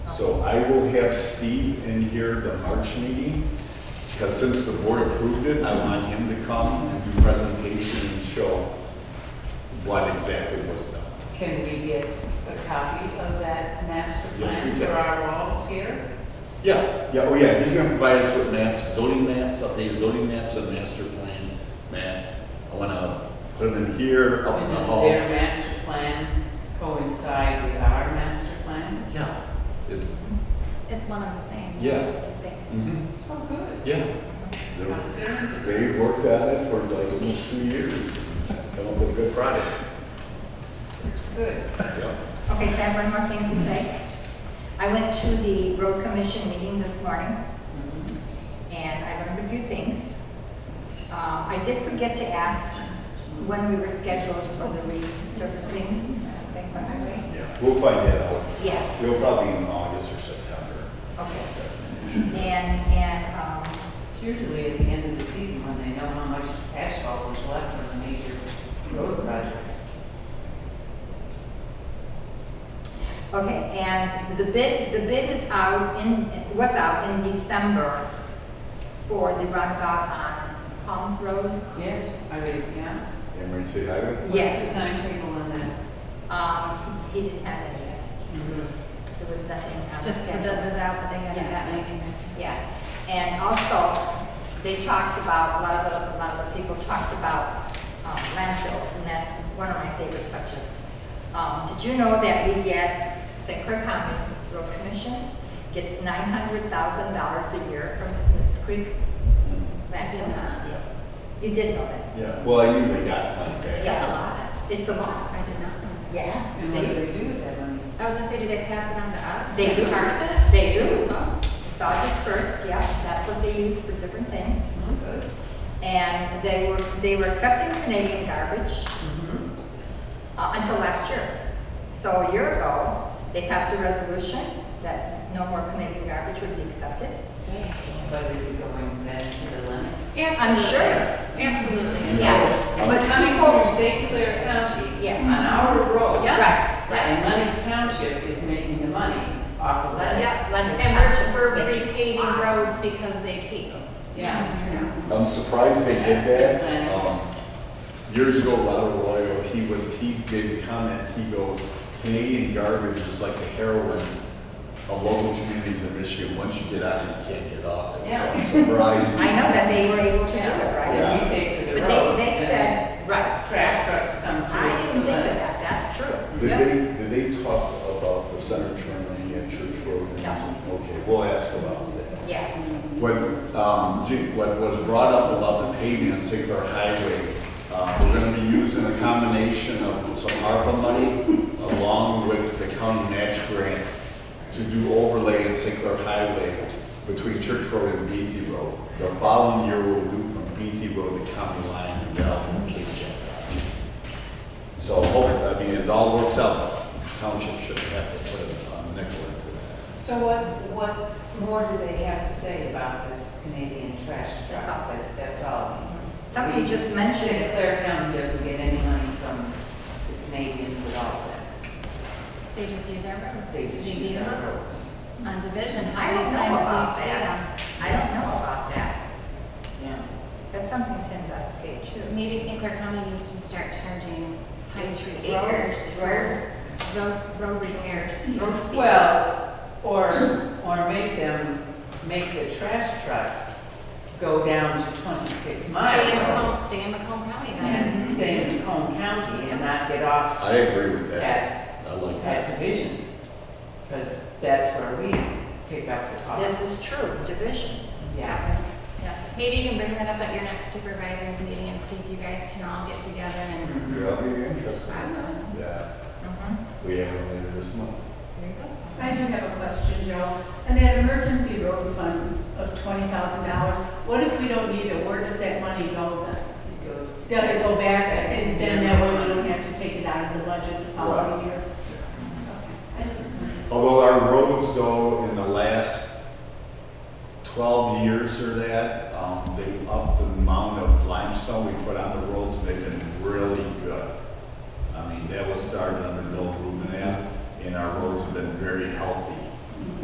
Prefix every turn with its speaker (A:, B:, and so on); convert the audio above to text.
A: So I will have Steve in here the March meeting, because since the board approved it, I want him to come and do presentation and show what exactly was done.
B: Can we get a copy of that master
A: Yes,
B: plan
A: we
B: for
A: can.
B: our walls here?
A: Yeah, yeah, oh yeah, he's gonna provide us with maps, zoning maps, updated zoning maps, and master plan maps. I wanna put them in here, up in
B: And
A: the
B: does
A: hall.
B: their master plan coincide with our master plan?
A: Yeah, it's,
C: It's one and the same.
A: Yeah.
C: It's the same.
A: mhm,
B: Oh, good.
A: yeah.
B: How soon?
A: They worked on it for like almost two years, come up with a good product.
B: Good.
A: Yeah.
D: Okay, so I have one more thing to say. I went to the road commission meeting this morning,
B: Mm-hmm.
D: and I learned a few things. Uh, I did forget to ask when we were scheduled for the resurfacing, uh, St. Croix Highway.
A: Yeah, we'll find that out.
D: Yeah,
A: We'll probably in August or September.
D: okay. And, and, um,
B: It's usually at the end of the season when they know how much asphalt is left from the major road projects.
D: okay, and the bid, the bid is out in, was out in December for the roundabout on Palms Road.
B: Yes, I mean, yeah.
A: Emergency Highway?
B: What's the timetable on that?
D: Um, he didn't have it yet. There was nothing on the
C: Just the
D: schedule.
C: bid was out, but they haven't
B: Yeah.
C: gotten anything.
D: Yeah, and also, they talked about, a lot of the, a lot of the people talked about um, landfills, and that's one of my favorite subjects. Um, Did you know that we get, St. Clair County Road Commission gets nine hundred thousand dollars a year from Smiths Creek
C: I did
D: landfill?
C: not.
A: Yeah.
D: You did know that?
A: Yeah, well, I knew they got money back.
D: Yeah.
C: That's a lot.
D: It's a lot.
C: I did not know.
D: Yeah.
B: And what do they do with that money?
C: I was gonna say, do they pass it on to us?
D: They do.
C: Part of it?
D: They do.
C: Oh.
D: It's all dispersed, yeah, that's what they use for different things.
B: Oh, good.
D: And they were, they were accepting Canadian garbage,
B: Mhm.
D: uh, until last year. So a year ago, they passed a resolution that no more Canadian garbage would be accepted.
B: But is it going back to the Lennox?
D: I'm sure.
C: Absolutely. Absolutely.
D: Yes,
B: It's
D: but
B: coming
D: people,
B: from St. Clair County
D: Yeah.
B: on our road.
C: Yes.
D: Right, right.
B: And Lennox Township is making the money off of Lennox.
C: Yes,
D: Lennox
C: and we're, we're
D: Township's big.
C: repaving roads because they keep them.
B: Yeah, you know.
A: I'm surprised they did that. Um, Years ago, Robert Arroyo, he would, he made a comment, he goes, Canadian garbage is like the heroin of local communities in Michigan. Once you get on it, you can't get off it. So I'm
B: Yeah.
A: surprised.
D: I know that they were able to do it,
A: Yeah.
D: right?
B: And we pay for
D: But
B: the
D: they,
B: roads.
D: they
B: and
D: said, right,
B: Trash trucks come through.
D: I didn't think of
B: Lennox.
D: that, that's true.
A: Did they, did they talk about the center turn lane at Church Road?
D: No.
A: Okay, we'll ask about that.
D: Yeah,
A: What, um, G- what was brought up about the paving on St. Clair Highway, uh, we're gonna be using a combination of some ARPA money along with the county match grant to do overlay in St. Clair Highway between Church Road and Beatty Road. The following year, we'll do from Beatty Road to County Line and down to Cape Cod. So, hope- I mean, as all works out, township should have to put a nickel into that.
B: So what, what more do they have to say about this Canadian trash truck?
D: That's all.
B: That- That's all.
D: somebody just mentioned
B: St.
D: it.
B: Clair County doesn't get any money from the Canadians at all then.
C: They just use our roads.
B: They just
C: beat
B: use
C: them
B: our
C: up.
B: roads.
C: On division,
D: I
C: how
D: don't
C: many
D: know
C: times do
D: about
C: you see them?
D: that. I don't know about that.
B: Yeah.
D: That's something to investigate too.
C: Maybe St. Clair County needs to start charging Pine Tree
D: Road-
C: acres
D: road-
C: for road, road repairs.
D: road fees.
B: Well, or, or make them, make the trash trucks go down to twenty-six
C: Stay in
B: mile
C: Macomb, stay in Macomb County
B: and
C: then.
B: stay in Macomb County and not get off
A: I agree with that.
B: at,
A: I like that.
B: at Division. Because that's where we pick up the cost.
D: This is true, division.
B: Yeah.
D: Yeah.
C: Maybe you can bring that up at your next supervisor's meeting and see if you guys can all get together and.
A: That'll be interesting.
C: I know.
A: Yeah,
D: Mhm.
A: we have it later this month.
D: There you go.
E: I do have a question, Joe. And that emergency road fund of twenty thousand dollars, what if we don't need it? Where does that money go then?
B: It goes-
E: Does it go back and then that way we don't have to take it out of the budget the following year? Okay. I just,
A: Although our roads though, in the last twelve years or that, um, they upped the amount of limestone we put on the roads, and they've been really good. I mean, that was started under Bill Rubenap, and our roads have been very healthy